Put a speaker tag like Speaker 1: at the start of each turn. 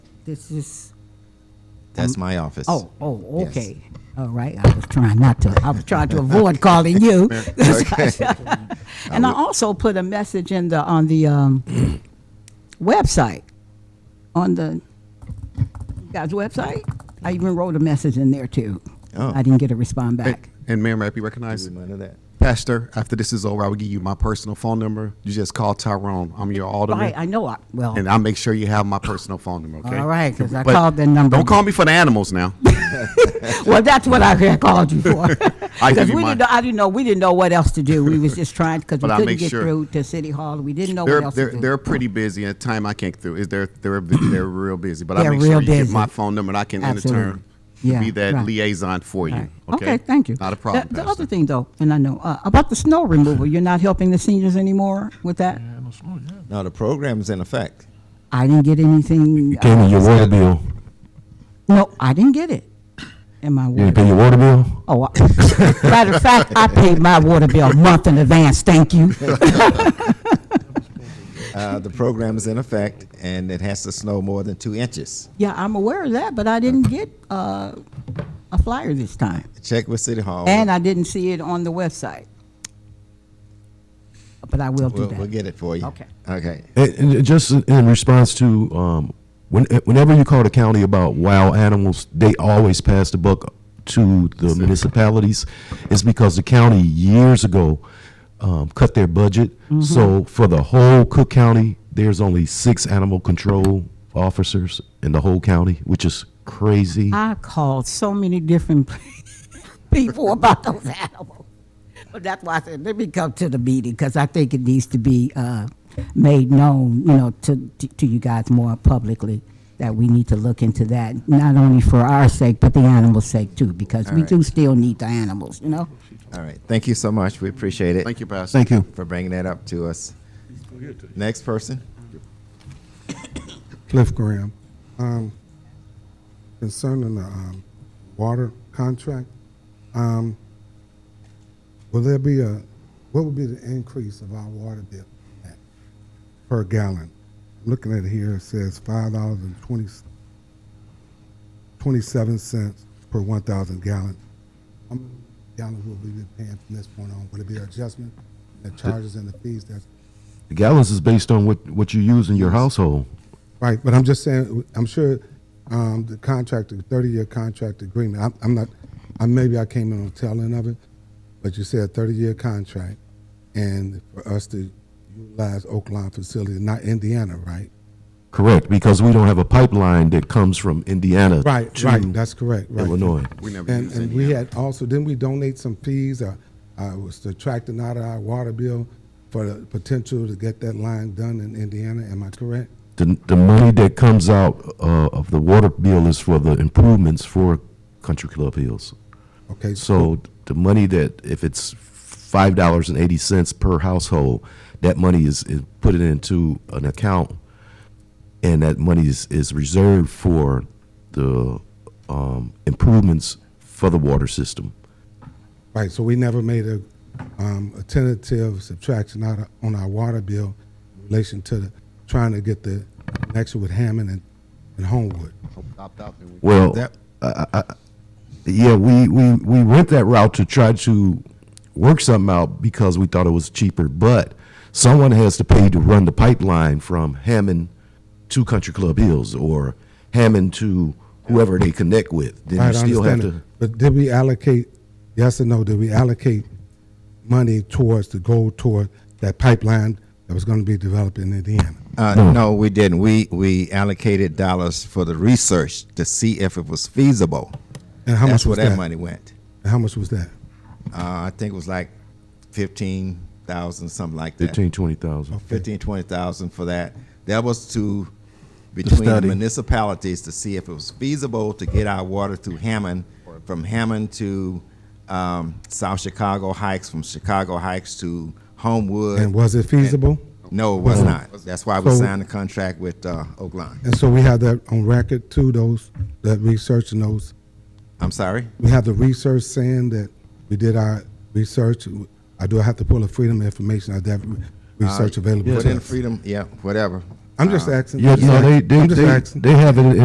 Speaker 1: This is,
Speaker 2: That's my office.
Speaker 1: oh, oh,
Speaker 2: Yes.
Speaker 1: okay. All right, I was trying not to, I was trying to avoid calling you. And I also put a message in the, on the um, website, on the, you guys' website. I even wrote a message in there too.
Speaker 2: Oh.
Speaker 1: I didn't get a respond back.
Speaker 3: And Mayor, may I be recognized?
Speaker 2: None of that.
Speaker 3: Pastor, after this is over, I will give you my personal phone number. You just call Tyrone. I'm your
Speaker 1: Right,
Speaker 3: alderman.
Speaker 1: I know, I well,
Speaker 3: And I'll make sure you have my personal phone number, okay?
Speaker 1: all right, because I
Speaker 3: But
Speaker 1: called the number.
Speaker 3: Don't call me for the animals now.
Speaker 1: Well, that's what I had called you for.
Speaker 3: I give
Speaker 1: Because
Speaker 3: you
Speaker 1: we didn't,
Speaker 3: mine.
Speaker 1: know- I didn't know, we didn't know what else to do. We was just trying, because we
Speaker 3: But I'll
Speaker 1: couldn't
Speaker 3: make
Speaker 1: get
Speaker 3: sure.
Speaker 1: through to City Hall. We didn't know what
Speaker 3: They're,
Speaker 1: else
Speaker 3: they're,
Speaker 1: to do.
Speaker 3: they're pretty busy at time I can't through. Is they're, they're, they're real busy, but I
Speaker 1: They're
Speaker 3: make sure
Speaker 1: real
Speaker 3: you get
Speaker 1: busy.
Speaker 3: my phone number and I can in
Speaker 1: Absolutely.
Speaker 3: turn
Speaker 1: Yeah,
Speaker 3: be that
Speaker 1: right.
Speaker 3: liaison for you, okay?
Speaker 1: Okay, thank you.
Speaker 3: Not a
Speaker 1: The-
Speaker 3: problem,
Speaker 1: The
Speaker 3: Pastor.
Speaker 1: other thing, though, and I know, uh, about the snow removal, you're not helping the seniors anymore with that?
Speaker 4: Yeah, no snow, yeah.
Speaker 2: No, the program's in effect.
Speaker 1: I didn't get anything, uh,
Speaker 5: You Pay me your water bill.
Speaker 1: no, I didn't get it in my
Speaker 5: You
Speaker 1: water.
Speaker 5: didn't pay your water bill?
Speaker 1: Oh, I- matter of fact, I paid my water bill a month in advance, thank you.
Speaker 2: Uh, the program is in effect, and it has to snow more than two inches.
Speaker 1: Yeah, I'm aware of that, but I didn't get uh, a flyer this time.
Speaker 2: Check with City Hall.
Speaker 1: And I didn't see it on the website. But I will do
Speaker 2: we'll, we'll
Speaker 1: that.
Speaker 2: get it for you.
Speaker 1: Okay.
Speaker 2: Okay.
Speaker 5: And, and just in response to, um, when, whenever you call the county about wild animals, they always pass the buck to the municipalities. It's because the county years ago, um, cut their budget. So for the whole Cook County, there's only six animal control officers in the whole county, which is crazy.
Speaker 1: I called so many different people about those animals. But that's why I said, let me come to the meeting, because I think it needs to be uh, made known, you know, to, to- to you guys more publicly, that we need to look into that, not only for our sake, but the animals' sake too, because we
Speaker 2: right.
Speaker 1: do still need the animals, you know?
Speaker 2: All right. Thank you so much. We appreciate it
Speaker 3: Thank you, Pastor.
Speaker 5: Thank you.
Speaker 2: for bringing that up to us. Next person.
Speaker 6: Cliff Graham. Um, concerning the um, water contract, um, will there be a, what would be the increase of our water bill per gallon? I'm looking at it here, it says five dollars and twenty, twenty-seven cents per one thousand gallon. How many gallons will we be paying from this point on? Will it be adjustment, the charges and the fees that's
Speaker 5: The gallons is based on what, what you use in your household.
Speaker 6: Right, but I'm just saying, I'm sure um, the contract, the 30-year contract agreement, I'm- I'm not, I- maybe I came in on the tail end of it, but you said 30-year contract, and for us to utilize Oakland facility, not Indiana, right?
Speaker 5: Correct, because we don't have a pipeline that comes from Indiana
Speaker 6: Right,
Speaker 5: to
Speaker 6: right, that's correct, right.
Speaker 5: Illinois.
Speaker 3: We never
Speaker 6: And,
Speaker 3: use
Speaker 6: and
Speaker 3: any.
Speaker 6: we had also, didn't we donate some fees, or uh, was subtracting out of our water bill for the potential to get that line done in Indiana, am I correct?
Speaker 5: The, the money that comes out uh, of the water bill is for the improvements for Country Club Hills.
Speaker 6: Okay,
Speaker 5: So the money that, if it's five dollars and eighty cents per household, that money is, is put it into an account, and that money is, is reserved for the um, improvements for the water system.
Speaker 6: Right, so we never made a, um, a tentative subtraction out of, on our water bill in relation to the, trying to get the connection with Hammond and, and Homewood.
Speaker 5: Well,
Speaker 3: That-
Speaker 5: I- I- I- yeah, we, we, we went that route to try to work something out because we thought it was cheaper, but someone has to pay to run the pipeline from Hammond to Country Club Hills or Hammond to whoever they connect with. Then
Speaker 6: Right,
Speaker 5: you
Speaker 6: I
Speaker 5: still have
Speaker 6: understand
Speaker 5: to.
Speaker 6: it. But did we allocate, yes or no, did we allocate money towards, to go toward that pipeline that was gonna be developed in Indiana?
Speaker 2: Uh, no, we didn't. We we allocated dollars for the research to see if it was feasible.
Speaker 6: And how
Speaker 2: That's
Speaker 6: much
Speaker 2: where
Speaker 6: was
Speaker 2: that,
Speaker 6: that?
Speaker 2: money went.
Speaker 6: And How much was that?
Speaker 2: Uh, I think it was like fifteen thousand, something like that.
Speaker 5: Fifteen, twenty thousand.
Speaker 2: Fifteen, twenty thousand for that. That was to between the
Speaker 5: study.
Speaker 2: municipalities to see if it was feasible to get our water through Hammond, from Hammond to um, South Chicago Heights, from Chicago Heights to Homewood.
Speaker 6: And was it feasible?
Speaker 2: no, it was not. That's why we
Speaker 6: So-
Speaker 2: signed the contract with uh, Oakland.
Speaker 6: And so we have that on record too, those, that research and those
Speaker 2: I'm sorry.
Speaker 6: we have the research saying that we did our research. I do have to pull a freedom of information out that research available.
Speaker 2: Put
Speaker 6: to
Speaker 2: in
Speaker 6: us.
Speaker 2: freedom. Yeah, whatever.
Speaker 6: I'm just asking.
Speaker 5: Yeah,
Speaker 6: I'm just
Speaker 5: no, they,
Speaker 6: asking.
Speaker 5: they,
Speaker 6: I'm just
Speaker 5: they,
Speaker 6: asking.
Speaker 5: they have it